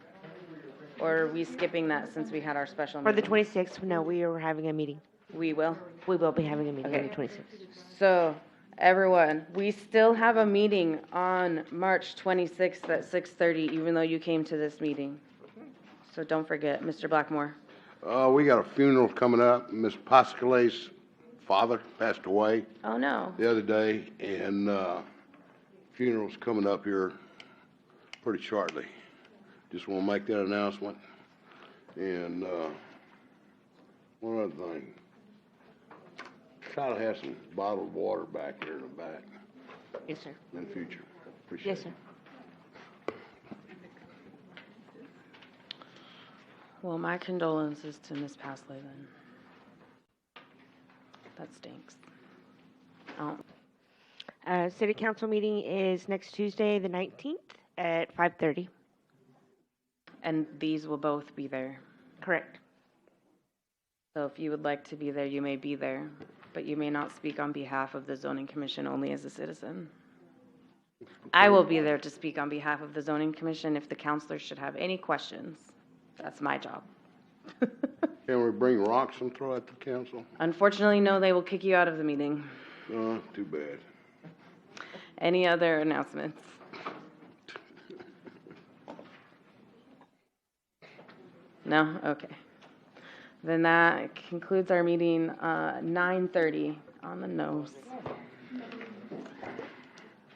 Or are we skipping that since we had our special For the meeting? twenty-sixth, no, we are having a meeting. We will. We will be having a meeting on Okay. the twenty-sixth. So, everyone, we still have a meeting on March 26th at 6:30, even though you came to this meeting. So don't forget, Mr. Blackmore. Uh, we got a funeral coming up. Miss Pascale's father passed away Oh, no. the other day, and, uh, funeral's coming up here pretty shortly. Just wanna make that announcement. And, uh, one other thing. Try to have some bottled water back here in the back Yes, sir. in the future. Appreciate it. Yes, sir. Well, my condolences to Miss Pasley then. That stinks. Oh, Uh, city council meeting is next Tuesday, the nineteenth, at five-thirty. And these will both be there. Correct. So if you would like to be there, you may be there, but you may not speak on behalf of the zoning commission, only as a citizen. I will be there to speak on behalf of the zoning commission if the counselors should have any questions. That's my job. Can we bring rocks and throw at the council? Unfortunately, no, they will kick you out of the meeting. Uh, too bad. Any other announcements? No? Okay. Then that concludes our meeting, uh, 9:30 on the nose.